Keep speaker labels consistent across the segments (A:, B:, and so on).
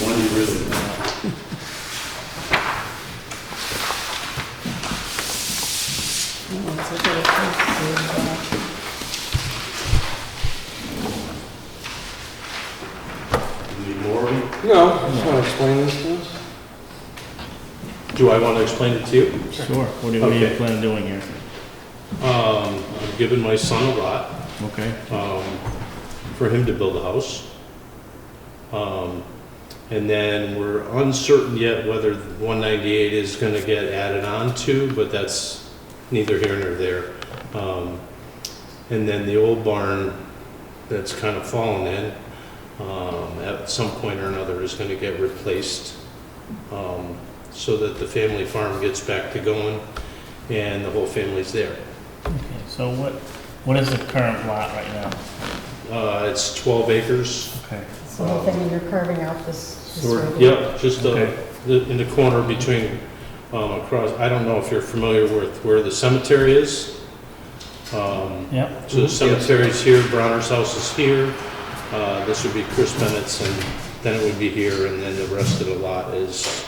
A: One you really want. You Need more?
B: No, just want to explain this to us.
A: Do I want to explain it to you?
C: Sure, what do what do you
A: Okay.
C: plan on doing here?
A: Um, I've given my son a lot,
C: Okay,
A: um, for him to build a house. Um, and then we're uncertain yet whether one ninety-eight is gonna get added on to, but that's neither here nor there. Um, and then the old barn that's kind of fallen in, um, at some point or another is gonna get replaced. Um, so that the family farm gets back to going and the whole family's there.
C: Okay. so what, what is the current lot right now?
A: Uh, it's 12 acres.
C: Okay.
D: So you're thinking you're carving out this, this
C: Sort-
D: road?
A: Yep, just uh,
C: Okay.
A: the- in the corner between, um, across, I don't know if you're familiar with where the cemetery is. Um,
C: Yep,
A: So the cemetery's here, Bronner's house is here. Uh, This would be Chris Bennett's, and then it would be here, and then the rest of the lot is,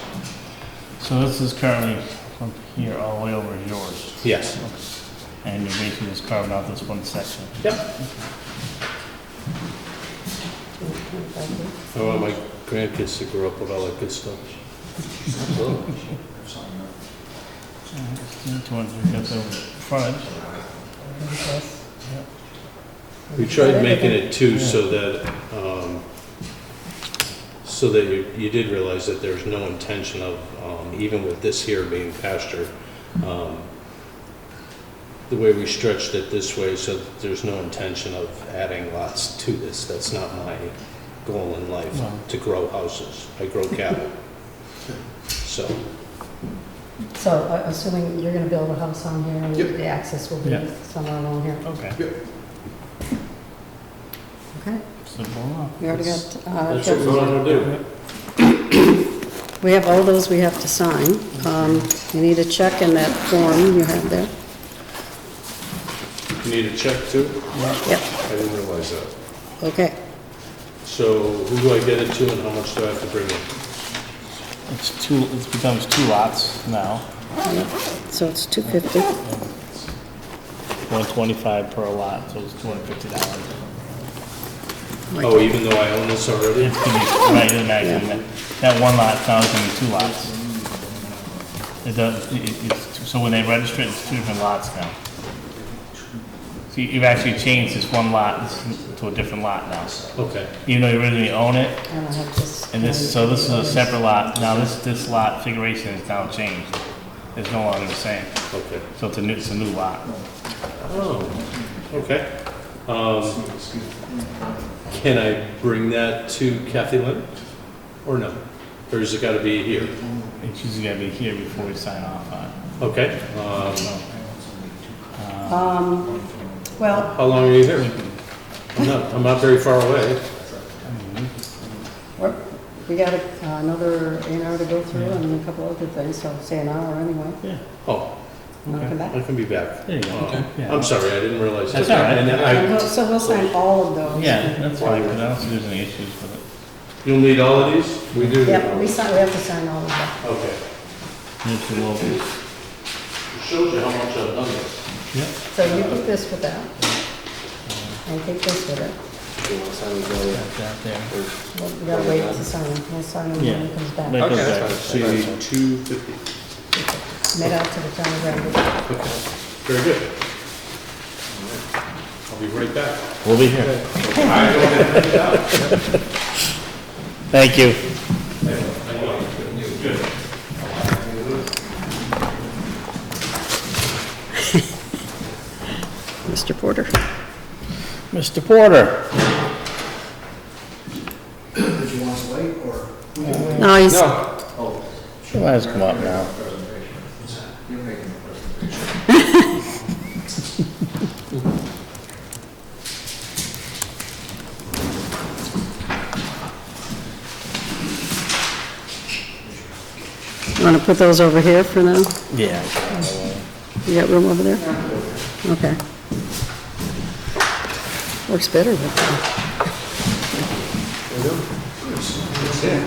C: so this is currently from here all the way over is yours,
A: yes.
C: and you're basically just carving out this one section.
A: Yep. I want Oh, my grandkids to grow up with all that good stuff.
C: Two hundred, we got the frontage.
A: We tried making it two so that, um, so that you, you did realize that there's no intention of, um, even with this here being pasture, um, the way we stretched it this way, so that there's no intention of adding lots to this. That's not my goal in life,
C: No.
A: to grow houses. I grow cattle. So,
D: So uh, assuming you're gonna build a house on here and
B: Yep.
D: the access will be
C: Yeah.
D: somewhere along here,
C: Okay.
D: okay?
C: Simple enough.
D: We already got, uh,
A: that's what we want to do.
D: we have all those we have to sign. Um, you need a check in that form you have there.
A: You need a check too?
D: Yep,
A: I didn't realize that.
D: okay.
A: So who do I get it to and how much do I have to bring in?
C: It's two, it becomes two lots now,
D: So it's two fifty.
C: one twenty-five per lot, so it's two hundred fifty dollars.
A: Oh, even though I own this already?
C: It's gonna be, right, it imagine, that, that one lot now is gonna be two lots. It does, it, it's, two- so when they register it, it's two different lots now. So you- you've actually changed this one lot to a different lot now,
A: Okay,
C: even though you originally own it,
D: And I have this.
C: And this, so this is a separate lot, now this, this lot configuration is now changed, it's no longer the same,
A: okay.
C: so it's a new, it's a new lot.
A: Oh, okay. Um, Can I bring that to Kathy Lynn? Or no? Or has it got to be here?
C: It's usually gotta be here before we sign off on it.
A: Okay. um,
D: Um, well,
A: How long are you here? I'm not, I'm not very far away.
D: we're- we got a- another an hour to go through and a couple other things, so say an hour anyway.
C: Yeah,
A: Oh,
D: and I'll come back.
A: I can be back.
C: there you go.
A: Uh,
C: Yeah.
A: I'm sorry, I didn't realize.
C: That's
A: that.
C: all right.
A: And I-
D: Well, So we'll sign all of those.
C: Yeah, that's fine, 'cause I don't see there's any issues with it.
A: You'll need all of these? We do.
D: Yep, we sign, we have to sign all of them.
A: Okay.
C: There's the local.
A: Shows you how much I've done this.
D: So you keep this with that. And keep this with it.
C: That's out there.
D: Well, We gotta wait to sign them. We'll sign them when
C: Yeah.
D: it comes back.
C: Like those guys.
A: So you need two fifty.
D: Made out to the town of Granby.
A: Very good. I'll be right back.
C: We'll be here. Thank you.
D: Mr. Porter.
C: Mr. Porter?
E: Did you want us to wait, or?
D: No, he's,
C: Your line's come up now.
E: You're making a presentation.
D: you wanna put those over here for now?
C: Yeah.
D: You got room over there? Okay. Works better with them.